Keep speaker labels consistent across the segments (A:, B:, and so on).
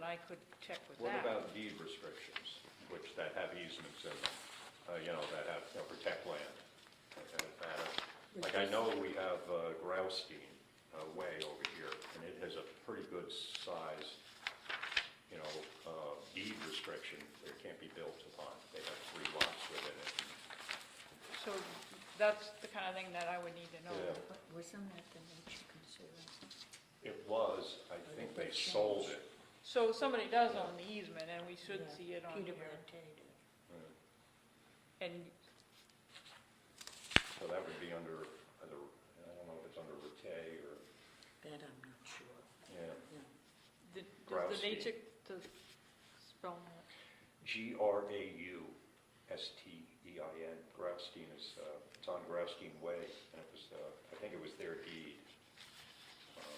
A: I could check with
B: What
A: that.
B: about deed restrictions, which that have easements in them, uh, you know, that have, you know, protect land? uh, that- Like, I know we have uh, Graustein uh, Way over here, and it has a pretty good size, you know, uh, deed restriction that it can't be built upon. They have three lots within it.
A: So that's the kind of thing that I would need to know.
B: Yeah.
C: But Wasn't that the nature conservancy?
B: It was, I think they sold it.
A: So somebody does own the easement, and we should
C: Yeah.
A: see it on
C: Peter
A: here.
C: Rattay did.
B: Uh,
A: And,
B: So that would be under, under, I don't know if it's under Rattay or,
C: That I'm not sure.
B: yeah.
A: the- does
B: Grouse
A: the
B: feed.
A: nature, does, spell that?
B: G R A U S T E I N, Graustein is, uh, it's on Graustein Way, and it was, uh, I think it was their deed. Um,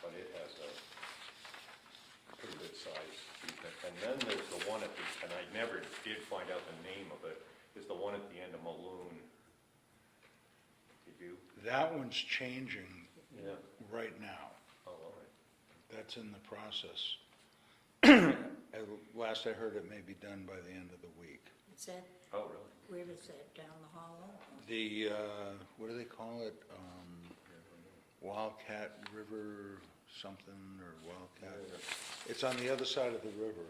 B: But it has a pretty good size easement. And then there's the one at the, and I never did find out the name of it, is the one at the end of Maloon. Did you?
D: That one's changing
B: Yeah.
D: right now.
B: Oh, all right.
D: That's in the process. At Last I heard, it may be done by the end of the week.
C: Is that,
B: Oh, really?
C: where is that, down the hollow?
D: The, uh, what do they call it? Um, Wildcat River something or Wildcat? It's on the other side of the river,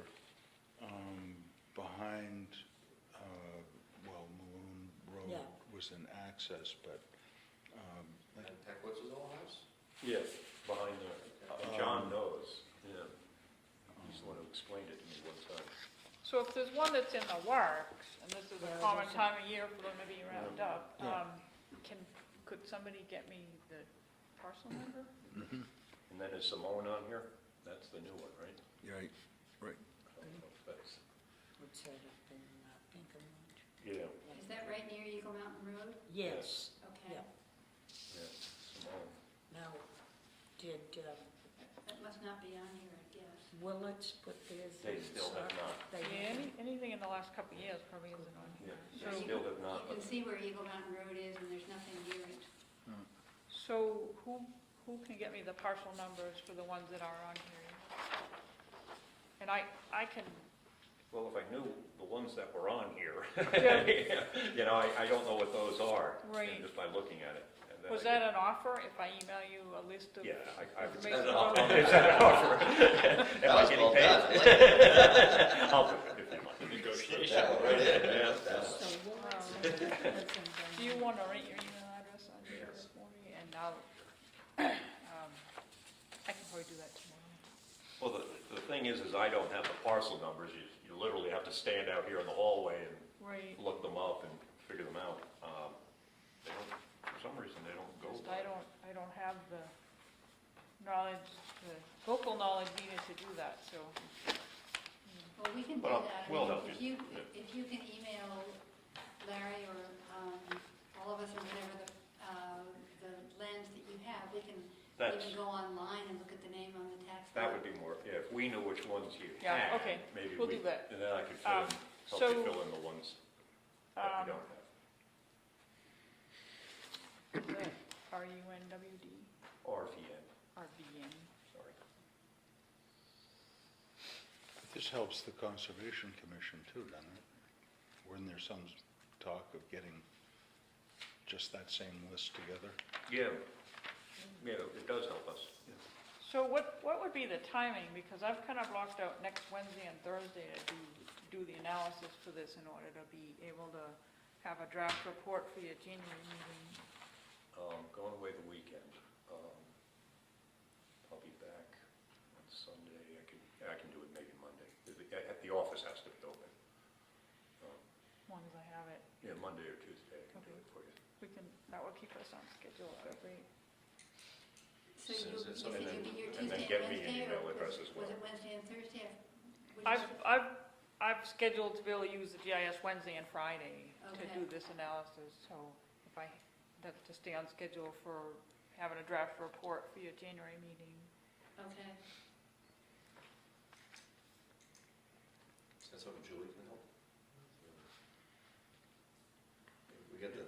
D: um, behind, uh, well, Maloon Road
C: Yeah.
D: was an access, but, um,
E: And Peck, what's his old house?
B: Yes, behind the, uh, John knows. Yeah. He's the one who explained it to me one time.
A: So if there's one that's in the works, and this is a
C: Well,
A: common
C: there's a-
A: time of year for them to be wrapped up,
D: Yeah.
A: um, can, could somebody get me the parcel number?
B: And then is Simone on here? That's the new one, right?
D: right, right.
B: I don't know if that's-
C: What's that up in uh, Pinkermont?
B: Yeah,
F: Is that right near Eagle Mountain Road?
C: Yes,
F: Okay.
C: Yeah.
B: yeah, Simone.
C: now, did uh,
F: That must not be on here, I guess.
C: Willetts put theirs in?
B: They still have
C: so-
B: not.
C: They
A: Yeah,
C: haven't?
A: any, anything in the last couple of years probably isn't on here.
B: Yeah,
A: So-
B: they still have not,
F: You
B: but
F: can see where Eagle Mountain Road is and there's nothing near it.
A: So who, who can get me the parcel numbers for the ones that are on here? And I, I can,
B: well, if I knew the ones that were on here, you know, I, I don't know what those are. and
A: Right.
B: Just by looking at it. and then
A: was
B: I
A: that
B: get-
A: an offer if I email you a list of?
B: Yeah, I, I would
A: information?
B: Is that an offer? Am I
E: was
B: getting
E: well done. I
B: paid? I'll do it if you want the negotiation.
E: That one right there.
B: Yeah.
C: So Willett's and Pinkermont.
A: Do you want to write your email address on here for me? And I'll, um, I can probably do that tomorrow.
B: Well, the, the thing is, is I don't have the parcel numbers. You, you literally have to stand out here in the hallway and
A: Right.
B: look them up and figure them out. Um, They don't, for some reason, they don't go.
A: I don't, I don't have the knowledge, the vocal knowledge needed to do that, so.
F: Well, we can do
B: Well,
F: that. I
B: we'll
F: mean,
B: help
F: If
B: you,
F: you,
B: yeah.
F: if you can email Larry or um, all of us or whatever the, uh, the lens that you have, we can
B: That's-
F: even go online and look at the name on the tax.
B: That
F: map.
B: would be more, yeah, if we knew which ones you
A: Yeah,
B: had.
A: okay,
B: maybe
A: we'll
B: we-
A: do that.
B: And then I could fill
A: Um,
B: in, help you
A: so-
B: fill in the ones that we
A: Um,
B: don't have.
A: the R U N W D
B: RVN,
A: R V N.
B: sorry.
D: This helps the Conservation Commission too, doesn't it? Wasn't there some talk of getting just that same list together?
B: Yeah, yeah, it does help us.
A: So what, what would be the timing? Because I've kind of blocked out next Wednesday and Thursday to do, to do the analysis for this in order to be able to have a draft report for your January meeting.
B: Um, going away the weekend. Um, I'll be back on Sunday. I can, I can do it maybe Monday. The- The, the office has to be open. Um,
A: As long as I have it,
B: Yeah, Monday or Tuesday, I can do it for you.
A: we can, that will keep us on schedule, that would be.
F: So
E: So
F: you,
E: is
F: you
E: it
F: said
E: something
F: you'd
B: that-
F: be here
B: and then
F: Tuesday
B: get
F: and
B: me an
F: Wednesday,
B: email
F: or
B: address
F: was
B: as
F: was
B: well.
F: it Wednesday and Thursday? Would you-
A: I've, I've, I've scheduled to be able to use the GIS Wednesday and Friday to
F: Okay.
A: do this analysis, so if I, that's to stay on schedule for having a draft report for your January meeting.
F: Okay.
E: Is that something Julie can help? We got the uh,